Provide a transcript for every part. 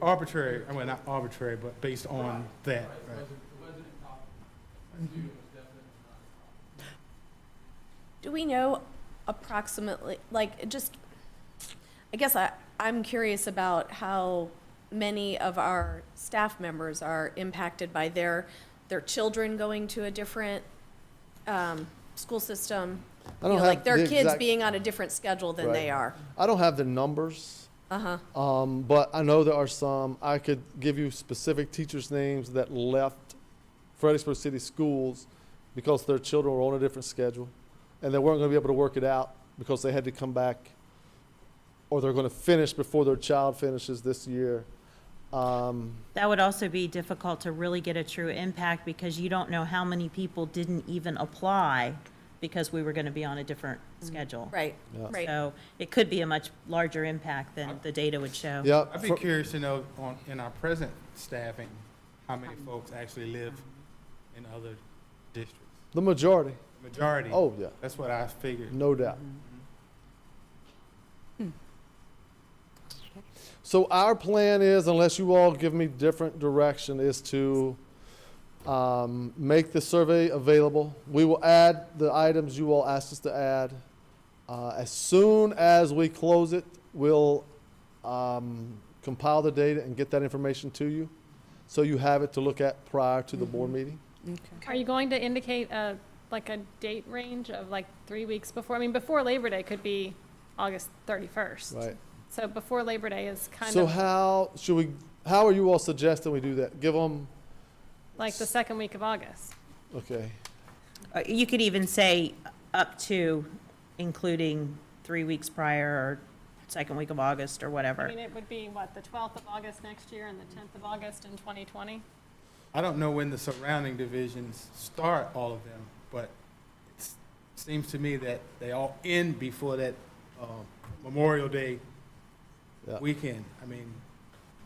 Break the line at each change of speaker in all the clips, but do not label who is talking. arbitrary, I mean, not arbitrary, but based on that. right.
Do we know approximately, like, just, I guess I, I'm curious about how many of our staff members are impacted by their, their children going to a different, um, school system?
I
You
don't
know, Like
have
their
the
kids
exact-
being on a different schedule than they
Right.
are.
I don't have the numbers,
Uh-huh,
um, but I know there are some. I could give you specific teachers' names that left Fredericksburg City Schools because their children were on a different schedule, and they weren't going to be able to work it out because they had to come back, or they're going to finish before their child finishes this year. Um,
That would also be difficult to really get a true impact because you don't know how many people didn't even apply because we were going to be on a different schedule.
right,
Yeah.
Mm-hmm. right.
So it could be a much larger impact than the data would show.
yeah,
I'd be
for-
curious to know on, in our present staffing, how many folks actually live in other districts?
the majority.
Majority.
Oh yeah,
That's what I figured.
no doubt.
Hmm.
So our plan is, unless you all give me different direction, is to um, make the survey available. We will add the items you all asked us to add. Uh, as soon as we close it, we'll um, compile the data and get that information to you, so you have it to look at prior to the board
Mm-hmm.
meeting.
Are you going to indicate a, like a date range of like three weeks before? I mean, before Labor Day could be August thirty-first.
Right.
So before Labor Day is kind
So
of
how should we? How are you all suggesting we do that? Give them
like the second week of August.
okay.
Uh, You could even say up to, including three weeks prior or second week of August or
I
whatever.
mean, it would be what, the twelfth of August next year and the tenth of August in twenty twenty?
I don't know when the surrounding divisions start all of them, but it seems to me that they all end before that um, Memorial Day
Yeah.
weekend. I mean,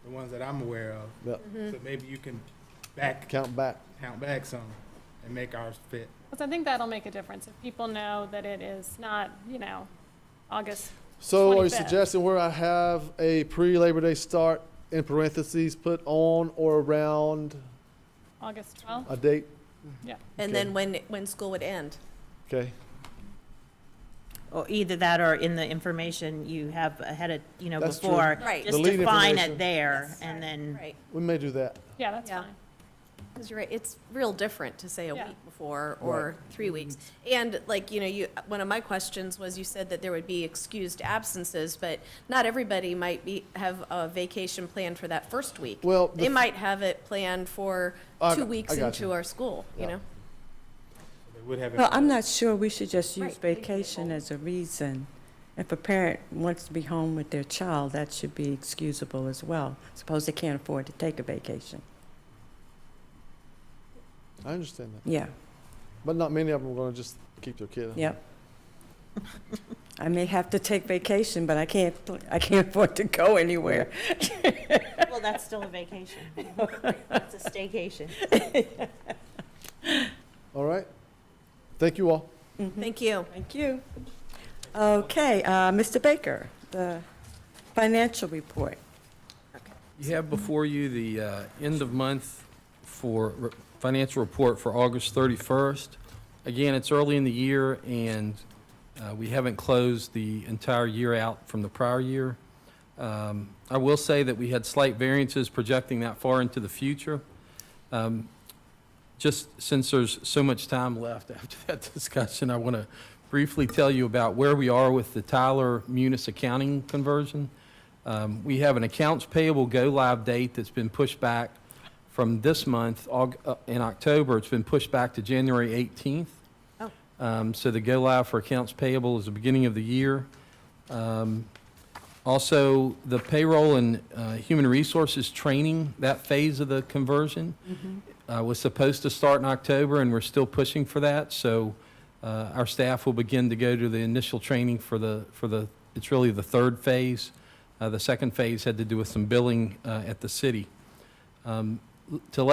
the ones that I'm aware of.
Yeah.
So maybe you can back,
Count back.
count back some and make ours fit.
Because I think that'll make a difference if people know that it is not, you know, August.
So are you
25th.
suggesting where I have a pre-Labor Day start in parentheses, put on or around
August twelfth?
a date?
And then when, when school would end.
Okay,
Or either that or in the information you have ahead of, you know,
That's true.
before.
Right.
Just
The lead
define
information.
it there
Yes.
and then.
Right,
we may do that.
Yeah, that's
Yeah.
fine.
because you're right, it's real different to say a
Yeah.
week before or three
Mm-hmm.
weeks. And like, you know, you, one of my questions was you said that there would be excused absences, but not everybody might be, have a vacation planned for that first week.
Well, the
They
f-
might have it planned for
I
two
got-
weeks
I got you.
into our school, you
Yeah.
know?
They would have it
Well, I'm not sure uh, we should just use
Right, leave it
vacation
alone.
as a reason. If a parent wants to be home with their child, that should be excusable as well. Suppose they can't afford to take a vacation.
I understand that.
Yeah,
But not many of them are gonna just keep their kid. at home.
yep. I may have to take vacation, but I can't, I can't afford to go anywhere.
Well, that's still a vacation. It's a staycation.
All right. Thank you all.
Thank you.
Thank you. Okay, uh, Mr. Baker, the financial report.
You have before you the uh, end of month for re- financial report for August 31st. Again, it's early in the year, and uh, we haven't closed the entire year out from the prior year. Um, I will say that we had slight variances projecting that far into the future. Um, Just since there's so much time left after that discussion, I want to briefly tell you about where we are with the Tyler Munis accounting conversion. Um, We have an accounts payable go-live date that's been pushed back from this month, Aug- uh, in October, it's been pushed back to January 18th.
Oh.
Um, So the go-live for accounts payable is the beginning of the year. Um, Also, the payroll and uh, human resources training, that phase of the conversion uh, was supposed to start in October, and we're still pushing for that. So uh, our staff will begin to go to the initial training for the, for the, it's really the third phase. Uh, The second phase had to do with some billing uh, at the city. Um, l- To let